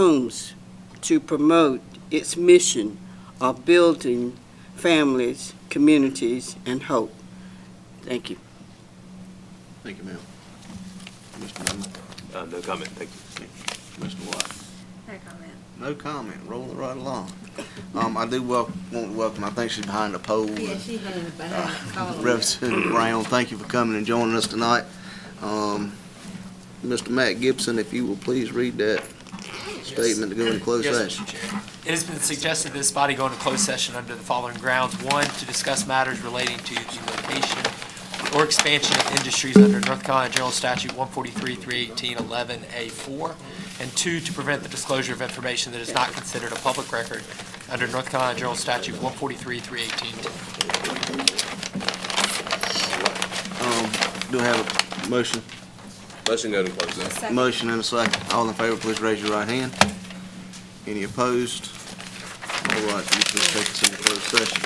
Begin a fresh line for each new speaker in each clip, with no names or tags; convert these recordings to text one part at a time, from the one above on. homes to promote its mission of building families, communities, and hope. Thank you.
Thank you, ma'am. Mr. Bowman,
Uh, No comment, thank you.
Mr. Watt,
No comment.
no comment, rolling right along. Um, I do wel, want to welcome, I think she's behind the pole. Uh,
Yeah, she hung behind the
Ah,
column.
Representative Brown, thank you for coming and joining us tonight. Um, Mr. Matt Gibson, if you will please read that statement to go into closed
Yes, Mr.
session.
Chair. It has been suggested this body go into closed session under the following grounds. One, to discuss matters relating to the location or expansion of industries under North Carolina General Statute 143, 318, 11A4. And two, to prevent the disclosure of information that is not considered a public record under North Carolina General Statute 143, 318.
Um, do I have a motion?
Motion go to closed session.
Second.
Motion and a second. All in favor, please raise your right hand. Any opposed? All right, you can take us into closed session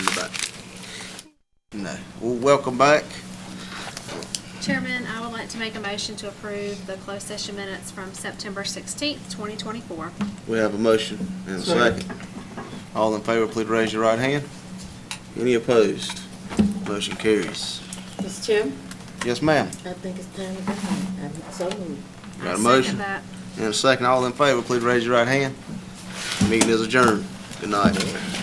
in the back. No. Well, welcome back.
Chairman, I would like to make a motion to approve the closed session minutes from September 16th, 2024.
We have a motion and a second. All in favor, please raise your right hand. Any opposed? Motion carries.
Mr. Chairman,
Yes, ma'am.
I think it's time to go home. I'm so moved.
I
Got a
second
motion?
that.
And a second. All in favor, please raise your right hand. Meeting is adjourned. Good night.